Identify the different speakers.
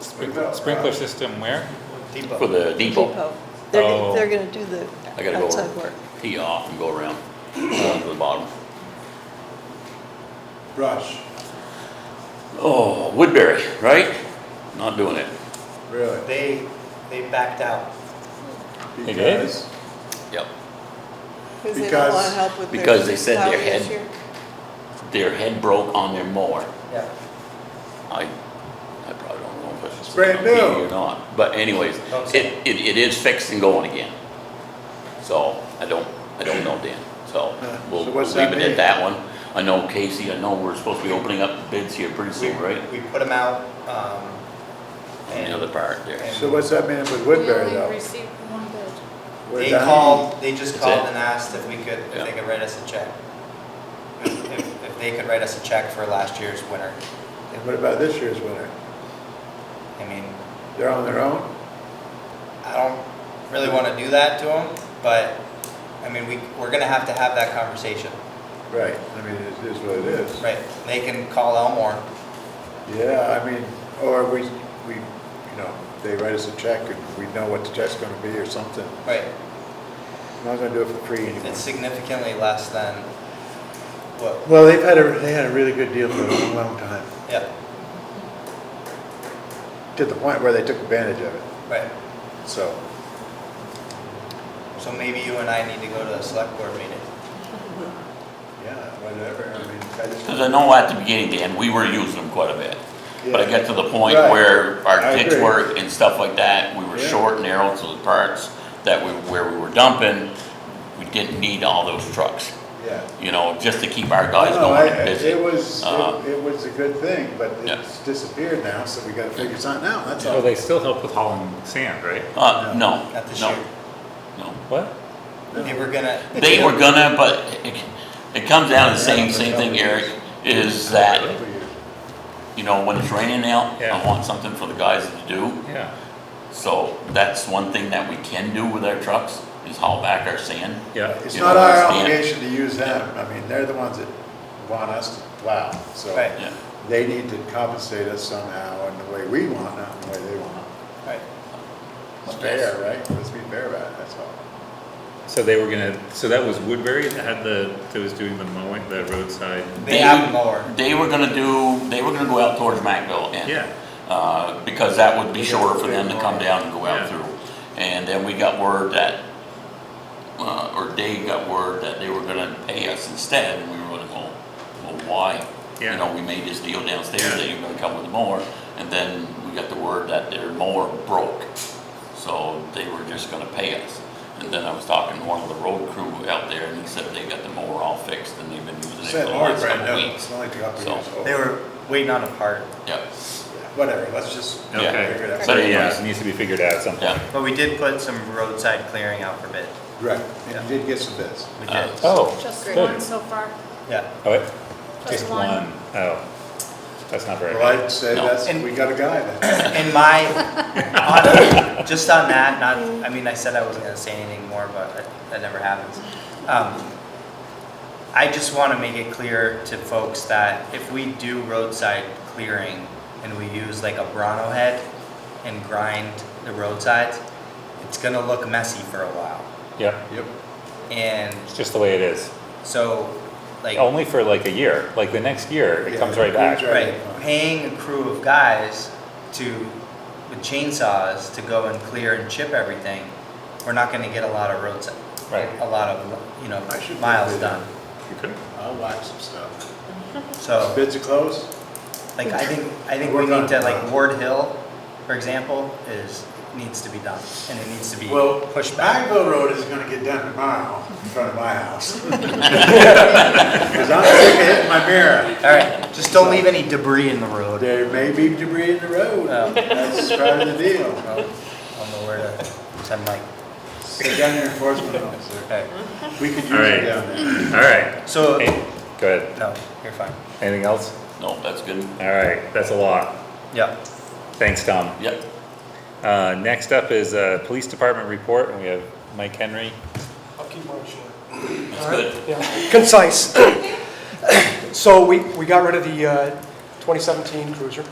Speaker 1: Sprinkler sprinkler system where?
Speaker 2: for the depot.
Speaker 3: Depot. They're,
Speaker 1: Oh.
Speaker 3: gonna- they're gonna do the
Speaker 2: I gotta go
Speaker 3: outside work.
Speaker 2: tee off and go around uh, to the bottom.
Speaker 4: Rush,
Speaker 2: Oh, Woodbury, right? Not doing it.
Speaker 4: really?
Speaker 5: They, they backed out.
Speaker 1: It
Speaker 4: Because-
Speaker 1: is?
Speaker 2: Yep.
Speaker 3: Because they don't wanna
Speaker 4: Because-
Speaker 3: help with their.
Speaker 2: because they said their
Speaker 3: plowing this
Speaker 2: head-
Speaker 3: year.
Speaker 2: Their head broke on their mower.
Speaker 5: Yeah.
Speaker 2: I, I probably don't know if it's.
Speaker 4: Brand new.
Speaker 2: Or not, but anyways, it, it, it is fixed and going again. So, I don't, I don't know Dan, so
Speaker 4: Yeah,
Speaker 2: we'll
Speaker 4: Uh, so
Speaker 2: we'll
Speaker 4: what's
Speaker 2: leave
Speaker 4: that
Speaker 2: it
Speaker 4: mean?
Speaker 2: at that one. I know Casey, I know we're supposed to be opening up bids here pretty soon, right?
Speaker 5: We put them out, um,
Speaker 2: On the other
Speaker 5: and
Speaker 2: part there.
Speaker 4: So what's that mean with Woodbury
Speaker 6: We only
Speaker 4: though?
Speaker 6: received one bid.
Speaker 4: We're
Speaker 5: they
Speaker 4: done?
Speaker 5: called, they just
Speaker 2: That's
Speaker 5: called
Speaker 2: it?
Speaker 5: and asked if we could, if
Speaker 2: Yeah.
Speaker 5: they could write us a check. If, if- if they could write us a check for last year's winter.
Speaker 4: What about this year's winter?
Speaker 5: I mean,
Speaker 4: They're on their own?
Speaker 5: I don't really wanna do that to them, but, I mean, we, we're gonna have to have that conversation,
Speaker 4: Right, I mean, it is what it is.
Speaker 5: right? They can call Elmore,
Speaker 4: Yeah, I mean, or we, we, you know, they write us a check and we know what the check's gonna be or something.
Speaker 5: right?
Speaker 4: I'm not gonna do it for free anymore.
Speaker 5: It's significantly less than what,
Speaker 7: Well, they've had a, they had a really good deal for a long time.
Speaker 5: yeah,
Speaker 4: To the point where they took advantage of it,
Speaker 5: right.
Speaker 4: so.
Speaker 5: So maybe you and I need to go to the select board meeting.
Speaker 4: Yeah, whatever, I mean, I just.
Speaker 2: Cause I know at the beginning, Dan, we were using them quite a bit. But I
Speaker 4: Yeah.
Speaker 2: got to the point
Speaker 4: Right.
Speaker 2: where our
Speaker 4: I
Speaker 2: ditch
Speaker 4: agree.
Speaker 2: work and stuff like that, we were
Speaker 4: Yeah.
Speaker 2: short and narrow to the parts that we, where we were dumping, we didn't need all those trucks,
Speaker 4: Yeah.
Speaker 2: you know, just to keep our guys
Speaker 4: No,
Speaker 2: going
Speaker 4: I-
Speaker 2: and busy.
Speaker 4: It was,
Speaker 2: Uh,
Speaker 4: it- it was a good thing, but
Speaker 2: Yeah.
Speaker 4: it's disappeared now, so we gotta figure something out, that's
Speaker 1: Oh,
Speaker 4: all.
Speaker 1: they still help with hauling sand, right?
Speaker 2: Uh, no,
Speaker 5: Not this year.
Speaker 2: no, no.
Speaker 1: What?
Speaker 5: They were gonna.
Speaker 2: They were gonna, but it, it comes down to the same, same thing, Eric, is that, you know, when it's raining out, I
Speaker 1: Yeah.
Speaker 2: want something for the guys to do.
Speaker 1: Yeah,
Speaker 2: So that's one thing that we can do with our trucks, is haul back our sand.
Speaker 1: yeah.
Speaker 4: It's
Speaker 2: You
Speaker 4: not
Speaker 2: know,
Speaker 4: our
Speaker 2: it's the-
Speaker 4: obligation to use them, I mean, they're the ones that want us to plow, so
Speaker 5: Right.
Speaker 2: Yeah.
Speaker 4: they need to compensate us somehow in the way we want, not in the way they want.
Speaker 5: Right.
Speaker 4: It's fair, right? Let's be fair about it, that's all.
Speaker 1: So they were gonna, so that was Woodbury that had the, that was doing the mowing, the roadside?
Speaker 5: They have more.
Speaker 2: They were gonna do, they were gonna go out towards Macville and.
Speaker 1: Yeah.
Speaker 2: Uh, because that would be shorter for them to come down and go
Speaker 1: Yeah.
Speaker 2: out through. And then we got word that, uh, or Dave got word that they were gonna pay us instead, and we were gonna go, well, why? You
Speaker 1: Yeah.
Speaker 2: know, we made this deal downstairs
Speaker 1: Yeah.
Speaker 2: that you're gonna come with more, and then we got the word that their mower broke. So they were just gonna pay us. And then I was talking to one of the road crew out there, and he said they got the mower all fixed, and they've been using it for
Speaker 4: Said,
Speaker 2: the
Speaker 4: or
Speaker 2: last
Speaker 4: brand
Speaker 2: couple
Speaker 4: new,
Speaker 2: weeks.
Speaker 4: it's only a couple
Speaker 2: So-
Speaker 4: years old.
Speaker 5: They were waiting on a part,
Speaker 2: Yep.
Speaker 4: Whatever, let's just
Speaker 1: Okay.
Speaker 4: figure it out.
Speaker 2: So-
Speaker 1: But Oh, yeah, it needs to be figured out at some point.
Speaker 2: Yeah.
Speaker 5: but we did put some roadside clearing out for bid.
Speaker 4: Right, and you did get some bids.
Speaker 5: We
Speaker 2: Uh,
Speaker 5: did.
Speaker 1: Oh,
Speaker 6: Just
Speaker 1: good.
Speaker 6: one so far.
Speaker 5: Yeah.
Speaker 1: Oh, wait,
Speaker 6: Just
Speaker 1: just
Speaker 6: one.
Speaker 1: one. Oh, that's not very
Speaker 4: Well,
Speaker 1: good.
Speaker 4: I'd say
Speaker 2: No.
Speaker 4: that's,
Speaker 5: And-
Speaker 4: we got a guy then.
Speaker 5: In my, on- just on that, not, I mean, I said I wasn't gonna say anything more, but that- that never happens. Um, I just wanna make it clear to folks that if we do roadside clearing and we use like a Bronco head and grind the roadsides, it's gonna look messy for a while.
Speaker 1: Yeah,
Speaker 4: Yep.
Speaker 5: And
Speaker 1: it's just the way it is.
Speaker 5: so, like.
Speaker 1: Only for like a year, like the next year, it comes right back.
Speaker 5: Right, paying a crew of guys to, with chainsaws, to go and clear and chip everything, we're not gonna get a lot of roads,
Speaker 1: Right.
Speaker 5: a lot of, you know,
Speaker 4: I should
Speaker 5: miles
Speaker 4: do that.
Speaker 5: done.
Speaker 1: Okay.
Speaker 4: I'll watch some stuff.
Speaker 5: So,
Speaker 4: Bids are closed?
Speaker 5: like, I think, I think we
Speaker 4: We're
Speaker 5: need to,
Speaker 4: done.
Speaker 5: like, Ward Hill, for example, is, needs to be done, and it needs to be
Speaker 4: Well,
Speaker 5: pushed back.
Speaker 4: Bagville Road is gonna get done tomorrow in front of my house. Cause I'm sick of hitting my mirror.
Speaker 5: Alright, just don't leave any debris in the road.
Speaker 4: There may be debris in the road.
Speaker 5: Oh.
Speaker 4: That's part of the deal.
Speaker 5: I don't know where to send my,
Speaker 4: Sit down your enforcement officer.
Speaker 5: okay,
Speaker 4: We could use
Speaker 1: All right.
Speaker 4: it down there.
Speaker 1: All right.
Speaker 5: so,
Speaker 1: Hey, Go ahead.
Speaker 5: no, you're fine,
Speaker 1: Anything else?
Speaker 2: No, that's good.
Speaker 1: All right, that's a lot.
Speaker 5: yeah.
Speaker 1: Thanks, Tom.
Speaker 2: Yep.
Speaker 1: Uh, next up is, uh, Police Department report, and we have Mike Henry.
Speaker 8: I'll keep mine short.
Speaker 2: That's good.
Speaker 8: Yeah, concise. So we, we got rid of the uh, 2017 Cruiser.